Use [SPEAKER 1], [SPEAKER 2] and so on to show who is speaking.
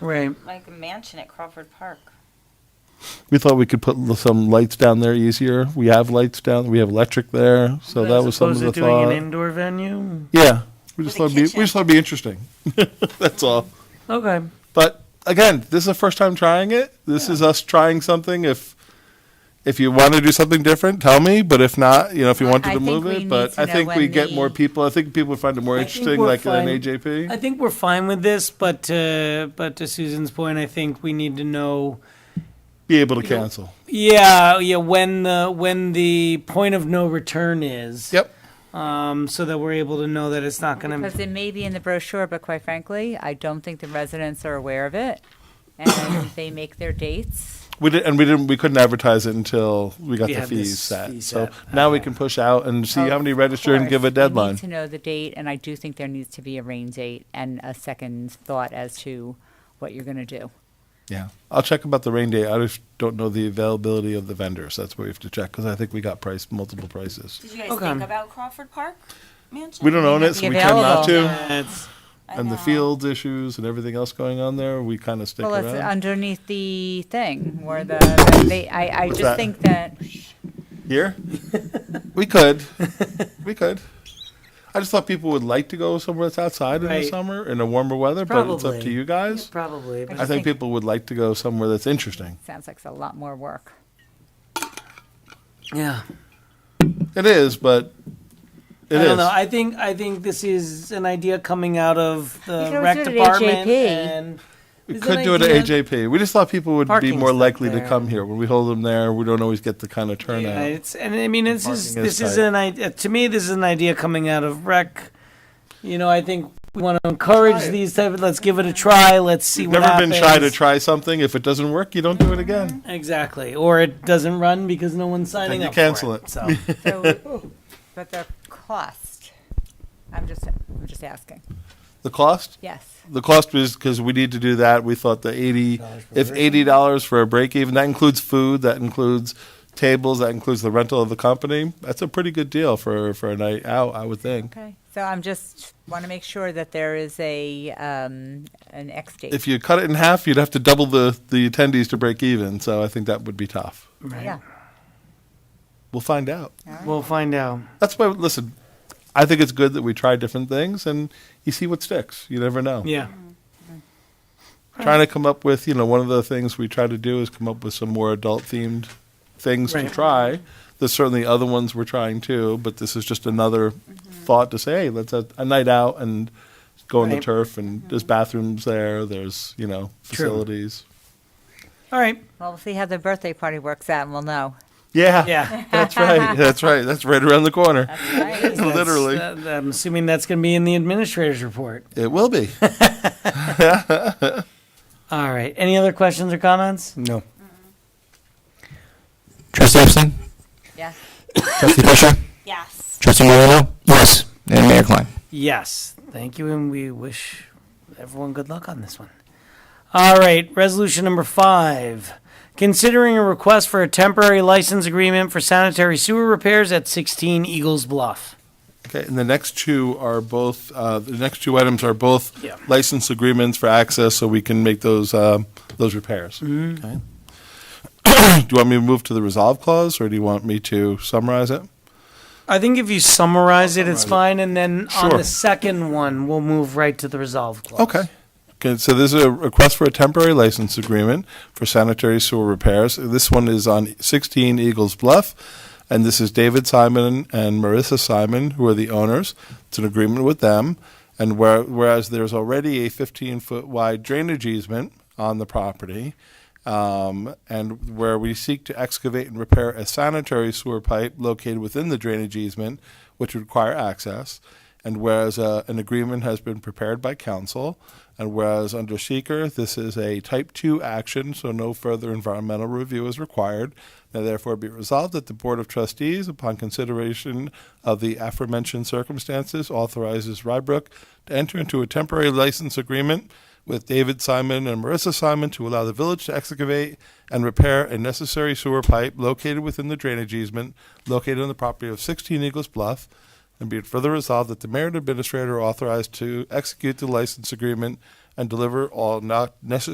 [SPEAKER 1] Right.
[SPEAKER 2] like a mansion at Crawford Park.
[SPEAKER 3] We thought we could put l- some lights down there easier. We have lights down. We have electric there, so
[SPEAKER 1] But
[SPEAKER 3] that
[SPEAKER 1] as
[SPEAKER 3] was some of
[SPEAKER 1] opposed to
[SPEAKER 3] the
[SPEAKER 1] doing
[SPEAKER 3] thought.
[SPEAKER 1] an indoor venue.
[SPEAKER 3] yeah, we just
[SPEAKER 2] With a
[SPEAKER 3] thought it'd be,
[SPEAKER 2] kitchen.
[SPEAKER 3] we just thought it'd be interesting. That's all.
[SPEAKER 1] Okay.
[SPEAKER 3] But again, this is the first time trying it. This is us trying something. If if you want to do something different, tell me. But if not, you know, if you
[SPEAKER 4] Well,
[SPEAKER 3] wanted
[SPEAKER 4] I
[SPEAKER 3] to
[SPEAKER 4] think
[SPEAKER 3] move
[SPEAKER 4] we
[SPEAKER 3] it,
[SPEAKER 4] need
[SPEAKER 3] but
[SPEAKER 4] to
[SPEAKER 3] I
[SPEAKER 4] know
[SPEAKER 3] think we
[SPEAKER 4] when
[SPEAKER 3] get
[SPEAKER 4] the-
[SPEAKER 3] more people. I think people would find it more
[SPEAKER 5] I think
[SPEAKER 3] interesting,
[SPEAKER 5] we're
[SPEAKER 3] like an
[SPEAKER 5] fine.
[SPEAKER 3] AJP.
[SPEAKER 1] I think we're fine with this, but uh, but to Susan's point, I think we need to know.
[SPEAKER 3] be able to cancel.
[SPEAKER 1] Yeah, yeah. When the when the point of no return is.
[SPEAKER 3] Yep.
[SPEAKER 1] Um, so that we're able to know that it's not going
[SPEAKER 4] Because
[SPEAKER 1] to.
[SPEAKER 4] it may be in the brochure, but quite frankly, I don't think the residents are aware of it. And they make their dates.
[SPEAKER 3] We did, and we didn't. We couldn't advertise it until we got
[SPEAKER 1] We
[SPEAKER 3] the
[SPEAKER 1] had
[SPEAKER 3] fees
[SPEAKER 1] this
[SPEAKER 3] set.
[SPEAKER 1] fee
[SPEAKER 3] so
[SPEAKER 1] set.
[SPEAKER 3] now we can push out and see how many register and
[SPEAKER 4] Oh, Of
[SPEAKER 3] give a
[SPEAKER 4] course, we
[SPEAKER 3] deadline.
[SPEAKER 4] need to know the date, and I do think there needs to be a rain date and a second thought as to what you're going to do.
[SPEAKER 3] Yeah, I'll check about the rain date. I just don't know the availability of the vendors. That's where we have to check because I think we got price multiple prices.
[SPEAKER 2] Did you guys
[SPEAKER 1] Okay.
[SPEAKER 2] think about Crawford Park mansion?
[SPEAKER 3] We don't own it,
[SPEAKER 4] not
[SPEAKER 3] so
[SPEAKER 4] be
[SPEAKER 3] we tend not
[SPEAKER 4] available.
[SPEAKER 3] to.
[SPEAKER 1] That's
[SPEAKER 2] I
[SPEAKER 3] And the
[SPEAKER 2] know.
[SPEAKER 3] fields issues and everything else going on there, we kind of stick
[SPEAKER 4] Well, uh, it's
[SPEAKER 3] around.
[SPEAKER 4] underneath the thing where the, they, I, I
[SPEAKER 3] that?
[SPEAKER 4] just think that,
[SPEAKER 3] Here, we could, we could. I just thought people would like to go somewhere that's outside in the
[SPEAKER 1] Right.
[SPEAKER 3] summer in a warmer weather, but it's up to
[SPEAKER 1] Probably.
[SPEAKER 3] you guys.
[SPEAKER 1] probably.
[SPEAKER 3] I think people would like to go somewhere that's interesting.
[SPEAKER 4] sounds like it's a lot more work.
[SPEAKER 1] Yeah.
[SPEAKER 3] It is, but it is.
[SPEAKER 1] I don't know. I think I think this is an idea coming out of the
[SPEAKER 4] can always
[SPEAKER 1] rec
[SPEAKER 4] do it at
[SPEAKER 1] department
[SPEAKER 4] AJP.
[SPEAKER 1] and
[SPEAKER 3] We
[SPEAKER 1] Is
[SPEAKER 3] could
[SPEAKER 1] an
[SPEAKER 3] do it at
[SPEAKER 1] idea-
[SPEAKER 3] AJP. We just thought people would be
[SPEAKER 1] Parking's
[SPEAKER 3] more
[SPEAKER 1] not
[SPEAKER 3] likely to
[SPEAKER 1] there.
[SPEAKER 3] come here. When we hold them there, we don't always get the kind of
[SPEAKER 1] Yeah,
[SPEAKER 3] turnout.
[SPEAKER 1] it's and I mean this is
[SPEAKER 3] Parking is
[SPEAKER 1] this is
[SPEAKER 3] tight.
[SPEAKER 1] an idea to me this is an idea coming out of rec. You know, I think we want to encourage these type of let's give it a try, let's see what
[SPEAKER 3] Never been shy to
[SPEAKER 1] happens.
[SPEAKER 3] try something. If it doesn't work, you don't do it again.
[SPEAKER 1] Exactly. Or it doesn't run because no one's signing
[SPEAKER 3] you
[SPEAKER 1] up.
[SPEAKER 3] cancel
[SPEAKER 1] for
[SPEAKER 3] it.
[SPEAKER 1] it. So
[SPEAKER 4] So, But the cost, I'm just, I'm just asking,
[SPEAKER 3] The cost?
[SPEAKER 4] yes.
[SPEAKER 3] The cost was because we need to do that. We thought the eighty, if eighty dollars for a break even, that includes food, that includes tables, that includes the rental of the company. That's a pretty good deal for for a night out, I would think.
[SPEAKER 4] Okay, so I'm just, want to make sure that there is a, um, an X date.
[SPEAKER 3] If you cut it in half, you'd have to double the the attendees to break even. So I think that would be tough.
[SPEAKER 4] Yeah,
[SPEAKER 3] We'll find out.
[SPEAKER 1] we'll find out.
[SPEAKER 3] That's why. Listen, I think it's good that we try different things and you see what sticks. You never know.
[SPEAKER 1] Yeah.
[SPEAKER 3] Trying to come up with, you know, one of the things we try to do is come up with some more adult themed things to
[SPEAKER 1] Right.
[SPEAKER 3] try. There's certainly other ones we're trying too, but this is just another thought to say, hey, let's have a night out and go on the
[SPEAKER 1] Right.
[SPEAKER 3] turf and there's bathrooms there, there's, you know, facilities.
[SPEAKER 1] All right.
[SPEAKER 4] well, we'll see how the birthday party works out and we'll know.
[SPEAKER 3] Yeah.
[SPEAKER 1] Yeah.
[SPEAKER 3] That's right. That's right. That's right around the corner.
[SPEAKER 2] Right.
[SPEAKER 1] That's-
[SPEAKER 3] Literally.
[SPEAKER 1] that- I'm assuming that's going to be in the administrator's report.
[SPEAKER 3] It will be.
[SPEAKER 1] All right. Any other questions or comments?
[SPEAKER 3] No.
[SPEAKER 6] Trustee Epstein?
[SPEAKER 4] Yeah.
[SPEAKER 6] Trustee Fisher?
[SPEAKER 2] Yes.
[SPEAKER 6] Trustee Moreno? Yes. And Mayor Klein?
[SPEAKER 1] Yes, thank you, and we wish everyone good luck on this one. All right, resolution number five. Considering a request for a temporary license agreement for sanitary sewer repairs at 16 Eagles Bluff.
[SPEAKER 3] Okay, and the next two are both, uh, the next two items are both
[SPEAKER 1] Yeah.
[SPEAKER 3] license agreements for access, so we can make those, um, those repairs. Okay. Do you want me to move to the resolve clause, or do you want me to summarize it?
[SPEAKER 1] I think if you summarize it, it's
[SPEAKER 3] Summarize
[SPEAKER 1] fine, and then on
[SPEAKER 3] Sure.
[SPEAKER 1] the second one, we'll move right to the resolve clause.
[SPEAKER 3] Okay. Okay, so this is a request for a temporary license agreement for sanitary sewer repairs. This one is on 16 Eagles Bluff, and this is David Simon and Marissa Simon, who are the owners. It's an agreement with them, and where- whereas there's already a 15-foot wide drainage easement on the property, um, and where we seek to excavate and repair a sanitary sewer pipe located within the drainage easement, which would require access, and whereas uh, an agreement has been prepared by council, and whereas under seeker, this is a type 2 action, so no further environmental review is required. Now, therefore, be resolved that the Board of Trustees, upon consideration of the aforementioned circumstances, authorizes Rybrook to enter into a temporary license agreement with David Simon and Marissa Simon to allow the village to excavate and repair a necessary sewer pipe located within the drainage easement located on the property of 16 Eagles Bluff. And be it further resolved that the mayor and administrator are authorized to execute the license agreement and deliver all not necessary